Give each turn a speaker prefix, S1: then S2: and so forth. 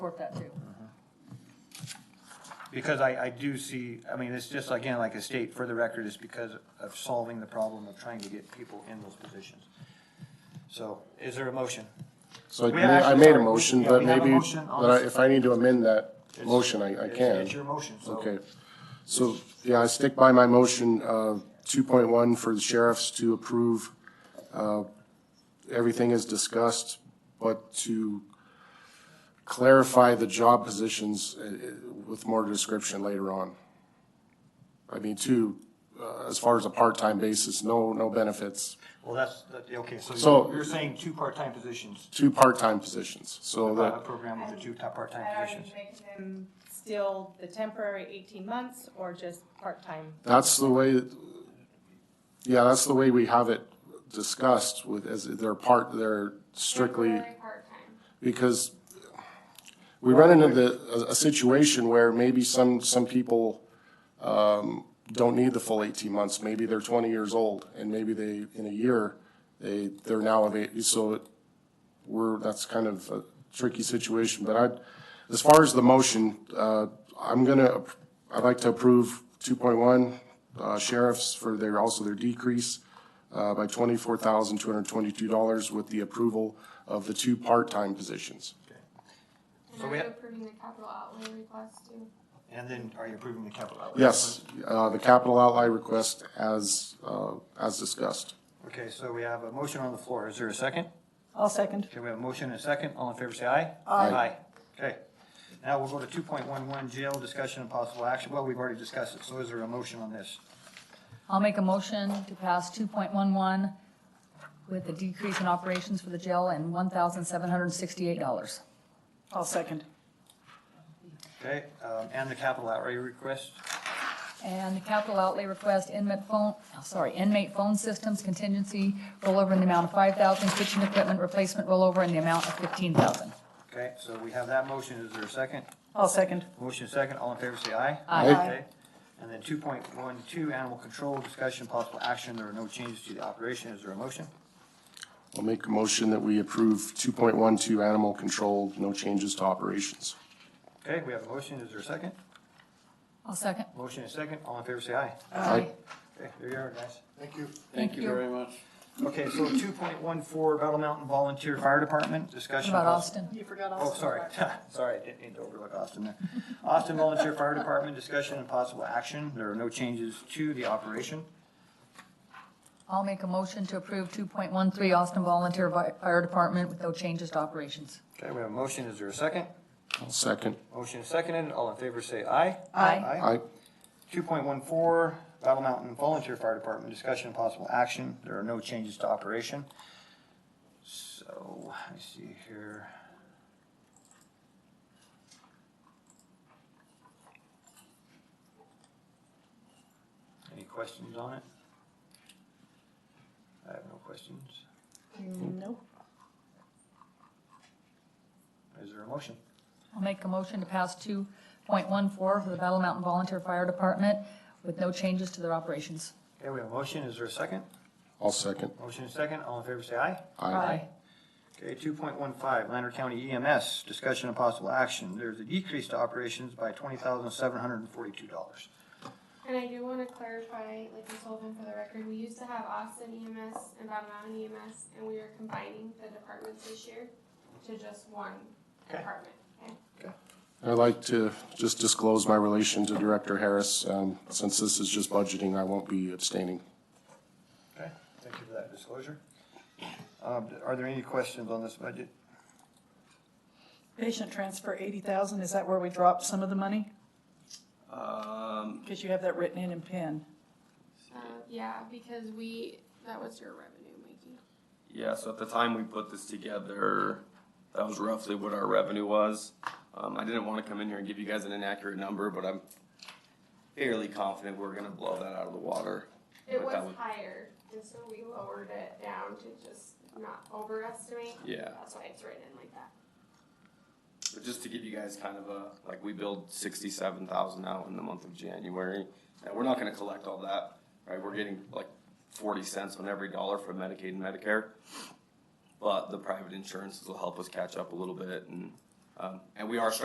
S1: support that too.
S2: Because I, I do see, I mean, it's just, again, like a state for the record, it's because of solving the problem of trying to get people in those positions. So is there a motion?
S3: So I
S2: We
S3: made, I
S2: actually
S3: made a
S2: already-
S3: motion,
S2: yeah,
S3: but
S2: we have a
S3: maybe,
S2: motion on
S3: but I-
S2: the-
S3: if I need to amend that motion, I, I
S2: It's-
S3: can.
S2: It's your motion, so.
S3: Okay. So, yeah, I stick by my motion, uh, two point one for the sheriffs to approve, uh, everything as discussed, but to clarify the job positions uh, uh, with more description later on. I mean, two, uh, as far as a part-time basis, no, no benefits,
S2: Well, that's, that- okay, so
S3: So-
S2: you're- you're saying two part-time positions,
S3: two part-time positions, so
S2: a
S3: that,
S2: program with the two top part-time
S4: Are you
S2: positions.
S4: making them still the temporary eighteen months or just part-time?
S3: that's the way, yeah, that's the way we have it discussed with, as they're part, they're strictly
S5: Temporary part-time.
S3: because we run into the, a, a situation where maybe some, some people, um, don't need the full eighteen months, maybe they're twenty years old, and maybe they, in a year, they, they're now of age, so it, we're, that's kind of a tricky situation, but I, as far as the motion, uh, I'm gonna, ap- I'd like to approve two point one, uh, sheriffs for their, also their decrease, uh, by twenty-four thousand, two hundred and twenty-two dollars with the approval of the two part-time positions.
S2: So
S5: And
S2: we
S5: are you
S2: ha-
S5: approving the capital outlay request too?
S2: And then are you approving the capital outlay?
S3: Yes, uh, the capital outlay request as, uh, as discussed.
S2: Okay, so we have a motion on the floor. Is there a second?
S1: I'll second.
S2: Okay, we have a motion and a second. All in favor, say aye.
S3: Aye.
S2: Okay. Now we'll go to two point one one, jail discussion and possible action. Well, we've already discussed it, so is there a motion on this?
S1: I'll make a motion to pass two point one one with a decrease in operations for the jail and one thousand seven hundred and sixty-eight dollars. I'll second.
S2: Okay, um, and the capital outlay request?
S1: And the capital outlay request inmate phone, oh, sorry, inmate phone systems contingency rollover in the amount of five thousand, kitchen equipment replacement rollover in the amount of fifteen thousand.
S2: Okay, so we have that motion. Is there a second?
S1: I'll second.
S2: Motion second, all in favor, say aye.
S1: Aye.
S3: Aye.
S2: Okay. And then two point one two, animal control, discussion, possible action, there are no changes to the operation, is there a motion?
S3: I'll make a motion that we approve two point one two animal control, no changes to operations.
S2: Okay, we have a motion, is there a second?
S1: I'll second.
S2: Motion is second, all in favor, say aye.
S3: Aye.
S2: Okay, there you are, guys. Thank you.
S1: Thank you very much.
S2: Okay, so two point one four, Battle Mountain Volunteer Fire Department,
S1: What
S2: discussion.
S1: about
S2: possible-
S1: Austin?
S4: You forgot
S2: Oh,
S4: also.
S2: sorry, sorry, I didn't mean to overlook Austin there. Austin Volunteer Fire Department, discussion and possible action, there are no changes to the operation.
S1: I'll make a motion to approve 2.13 Austin Volunteer Vi- Fire Department with no changes to operations.
S2: Okay, we have a motion, is there a second?
S3: I'll second.
S2: Motion is seconded, all in favor, say aye.
S1: Aye.
S3: I,
S2: Two point one four, Battle Mountain Volunteer Fire Department, discussion and possible action. There are no changes to operation. So, let me see here. Any questions on it? I have no questions.
S4: No.
S2: Is there a motion?
S1: I'll make a motion to pass 2.14 for the Battle Mountain Volunteer Fire Department with no changes to their operations.
S2: Okay, we have a motion. Is there a second?
S3: I'll second.
S2: Motion is second. All in favor, say aye.
S3: I,
S2: Okay, two point one five, Lander County EMS, discussion of possible action. There's a decrease to operations by twenty thousand seven hundred and forty-two dollars.
S5: And I do wanna clarify, like we told them for the record, we used to have Austin EMS and Battle Mountain EMS, and we are combining the departments this year to just one
S2: Okay.
S5: department, okay?
S3: I'd like to just disclose my relation to Director Harris. Um, since this is just budgeting, I won't be abstaining.
S2: Okay, thank you for that disclosure. Um, are there any questions on this budget?
S6: Patient transfer eighty thousand, is that where we dropped some of the money?
S7: Um,
S6: Because you have that written in in pen.
S5: Uh, yeah, because we, that was your revenue, Mikey.
S7: yeah, so at the time we put this together, that was roughly what our revenue was. Um, I didn't wanna come in here and give you guys an inaccurate number, but I'm fairly confident we're gonna blow that out of the water.
S5: It
S7: But that
S5: was
S7: would-
S5: higher, and so we lowered it down to just not overestimate.
S7: Yeah.
S5: That's why it's written in like that.
S7: But just to give you guys kind of a, like, we billed sixty-seven thousand out in the month of January. And we're not gonna collect all that, right? We're getting like forty cents on every dollar from Medicaid and Medicare. But the private insurances will help us catch up a little bit and, Um, and we are starting